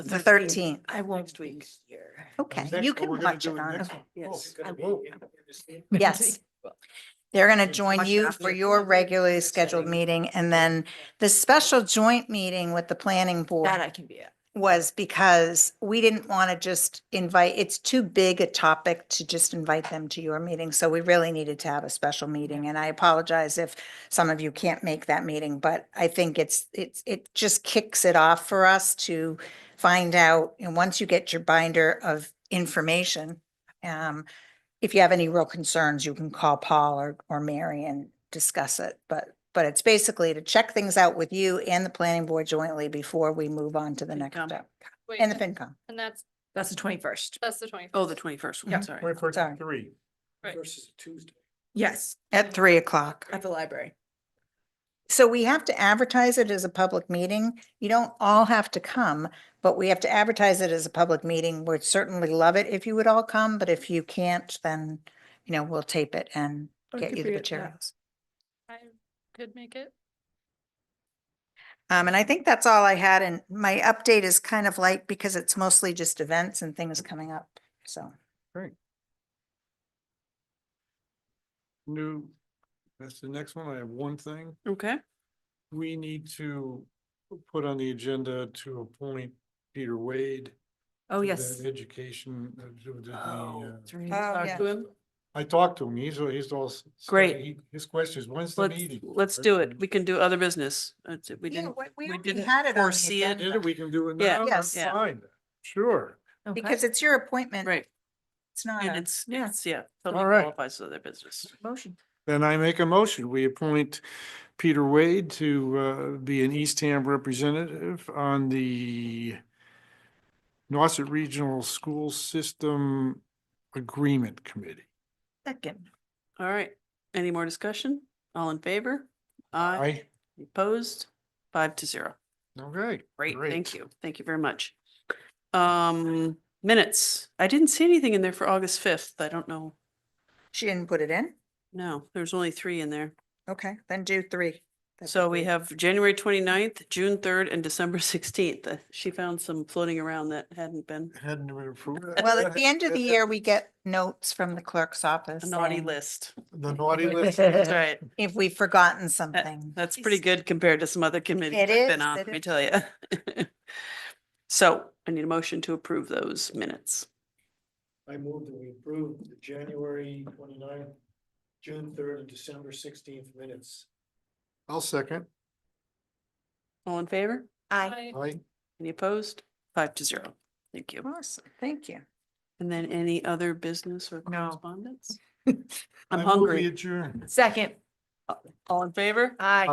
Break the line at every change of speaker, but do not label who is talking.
The
13th.
thirteenth. I won't be here.
Okay,
Next,
you
but
can
we're gonna
watch
do
it
it
on,
next
okay,
Yes.
Oh,
I
it's
will.
gonna be in this meeting.
yes. They're going to join
Watch it
you
after.
for your regularly scheduled meeting and then the special joint meeting with the planning
That
board
I can be at.
was because we didn't want to just invite, it's too big a topic to just invite them to your meeting. So we really needed to have a special meeting and I apologize if some of you can't make that meeting, but I think it's, it's, it just kicks it off for us to find out. And once you get your binder of information, um, if you have any real concerns, you can call Paul or, or Mary and discuss it. But, but it's basically to check things out with you and the planning board jointly before we move on to the next
FinCom.
step.
Wait,
And the FinCom.
And that's,
That's the twenty-first.
that's the twenty.
Oh, the twenty-first,
Yeah.
sorry.
Twenty-first
Sorry.
and three.
Right.
Versus Tuesday.
Yes,
At three o'clock.
at the library.
So we have to advertise it as a public meeting. You don't all have to come, but we have to advertise it as a public meeting. We'd certainly love it if you would all come, but if you can't, then, you know, we'll tape it and
Or it
get
could
you the
be at- yeah.
materials.
I could make it.
Um, and I think that's all I had. And my update is kind of light because it's mostly just events and things coming up. So
New, that's the next one. I have one thing.
Okay.
We need to put on the agenda to appoint Peter Wade.
Oh,
to the
yes.
Education. uh, to the,
Oh,
uh,
that's right.
Oh,
Talk
yeah.
to him.
I talked to him. He's, uh, he's all. s- said
Great.
he- His question is, when's the
Let's,
meeting?
let's do it. We can do other business. That's it. We
Yeah,
didn't,
we- we
we
already
didn't
had it on the
foresee it.
Either we can do it
Yeah.
now.
Yes.
that's
Yeah.
Fine, sure.
because it's your appointment.
Right.
It's not.
And
a-
it's, yeah, it's, yeah, totally
All right.
qualifies as other business.
Motion.
Then I make a motion. We appoint Peter Wade to uh, be an Eastham representative on the Nauset Regional School System Agreement Committee.
Second.
All right. Any more discussion? All in favor? Aye.
Aye.
Opposed? Five to zero.
Okay.
Great. Thank you. Thank you very much. Um, minutes. I didn't see anything in there for August fifth. I don't know.
She didn't put it in?
No, there's only three in there.
Okay, then do three. That'd be
So we
great.
have January 29th, June third, and December sixteenth. Uh, She found some floating around that hadn't been
Hadn't been approved.
Well, at the end of the year, we get notes from the clerk's office.
a naughty
saying
list.
The naughty list.
That's right.
If we've
Uh,
forgotten something.
That's pretty good compared to some other committees
It
I've been
is,
on,
it
let me
is.
tell you. So I need a motion to approve those minutes.
I move that we approve the January 29th, June third, and December sixteenth minutes.
I'll second.
All in favor?
I,
I
Aye.
Any opposed? Five to zero. Thank you.
awesome, thank you.
And then any other business or
No.
correspondence?
I
I'm
move we
hungry.
Adjourn.
Second.
All in favor?
Aye.